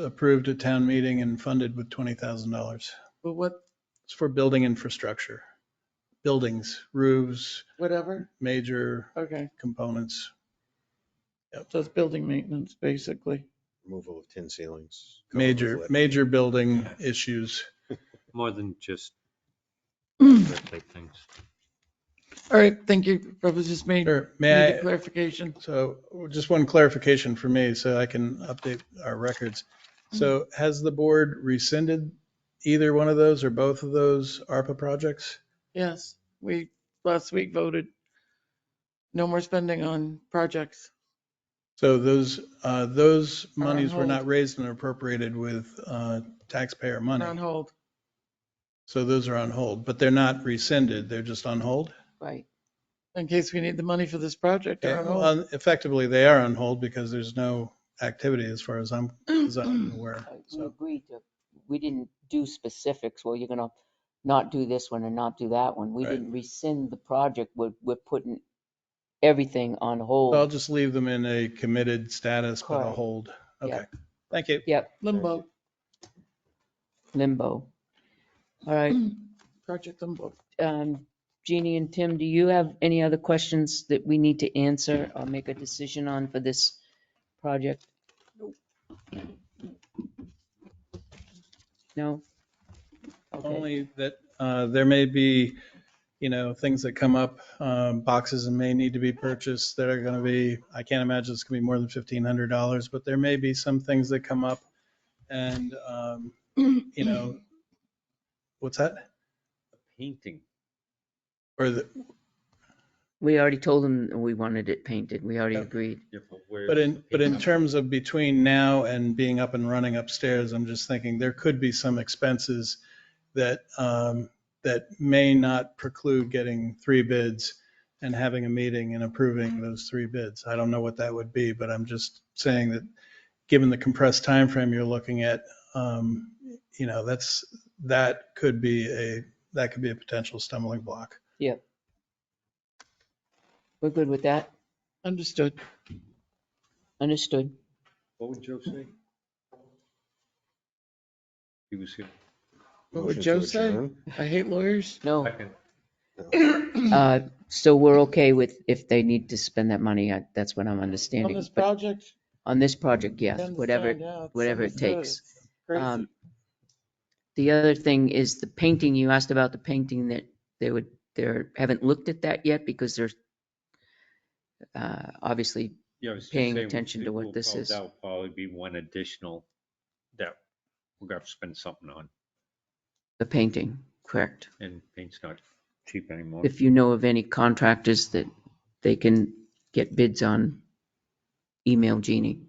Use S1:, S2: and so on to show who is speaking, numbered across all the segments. S1: approved at town meeting and funded with $20,000.
S2: But what,
S1: It's for building infrastructure, buildings, roofs,
S2: whatever,
S1: major
S2: okay,
S1: components.
S2: so it's building maintenance, basically.
S3: removal of tin ceilings. cover
S1: Major,
S3: with lead.
S1: major building issues.
S4: More than just
S2: All
S4: birthday things.
S2: right, thank you, that was just made,
S1: Sure, may
S2: needed
S1: I,
S2: clarification.
S1: so just one clarification for me, so I can update our records. So has the board rescinded either one of those or both of those ARPA projects?
S2: Yes, we last week voted no more spending on projects.
S1: So those, uh, those
S2: Are on
S1: monies were not
S2: hold.
S1: raised and appropriated with uh, taxpayer
S2: They're on
S1: money.
S2: hold.
S1: So those are on hold, but they're not rescinded. They're just on hold.
S2: Right. In case we need the money for this project, they're on hold.
S1: Well, Effectively, they are on hold because there's no activity as far as I'm, as I'm aware.
S5: Uh, We
S1: So
S5: agreed to, we didn't do specifics, well, you're gonna not do this one and not do that one. We
S1: Right.
S5: didn't rescind the project, we're, we're putting everything on
S1: I'll
S5: hold.
S1: just leave them in a committed status, but a
S5: Correct.
S1: hold. Okay.
S5: Yep.
S1: Thank you.
S5: Yep,
S2: Limbo,
S5: limbo. All right,
S2: project limbo.
S5: um, Jeannie and Tim, do you have any other questions that we need to answer or make a decision on for this project? No? Okay,
S1: Only that uh, there may be, you know, things that come up, um, boxes and may need to be purchased that are going to be, I can't imagine it's going to be more than $1,500, but there may be some things that come up and, um, you know, what's that?
S4: Painting.
S1: Or the,
S5: we already told them that we wanted it painted, we already agreed.
S4: Yeah, but where
S1: But
S4: is
S1: in,
S4: the
S1: but in
S4: painting?
S1: terms of between now and being up and running upstairs, I'm just thinking there could be some expenses that, um, that may not preclude getting three bids and having a meeting and approving those three bids. I don't know what that would be, but I'm just saying that, given the compressed time frame you're looking at, um, you know, that's, that could be a, that could be a potential stumbling block.
S5: We're good with that?
S2: Understood.
S5: Understood.
S4: What would Joe say? He was here.
S2: What
S3: Motion
S2: would
S3: to
S2: Joe say?
S3: adjourn?
S2: I hate lawyers.
S5: No,
S4: Second.
S5: uh, so we're okay with if they need to spend that money, I- that's what I'm
S2: On
S5: understanding.
S2: this
S5: But
S2: project.
S5: on this project, yes,
S2: understand,
S5: whatever.
S2: yeah, it's
S5: whatever it
S2: understood,
S5: takes.
S2: it's crazy.
S5: Um, The other thing is the painting, you asked about the painting that they would, they're, haven't looked at that yet because they're uh, obviously,
S4: Yeah, I was just
S5: Paying
S4: saying,
S5: attention
S4: it
S5: to what
S4: will
S5: this
S4: no
S5: is.
S4: doubt Probably be one additional that we're gonna have to spend something on
S5: the painting, correct?
S4: and paint's not cheap anymore.
S5: If you know of any contractors that they can get bids on, email Jeannie.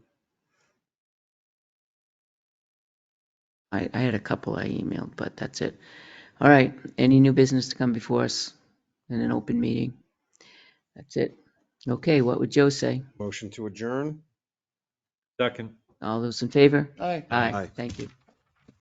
S5: I, I had a couple I emailed, but that's it. All right, any new business to come before us in an open meeting? That's it. Okay, what would Joe say?
S3: Motion to adjourn?
S4: Second.
S5: All those in favor?
S2: Aye.
S3: Aye.
S5: Thank you.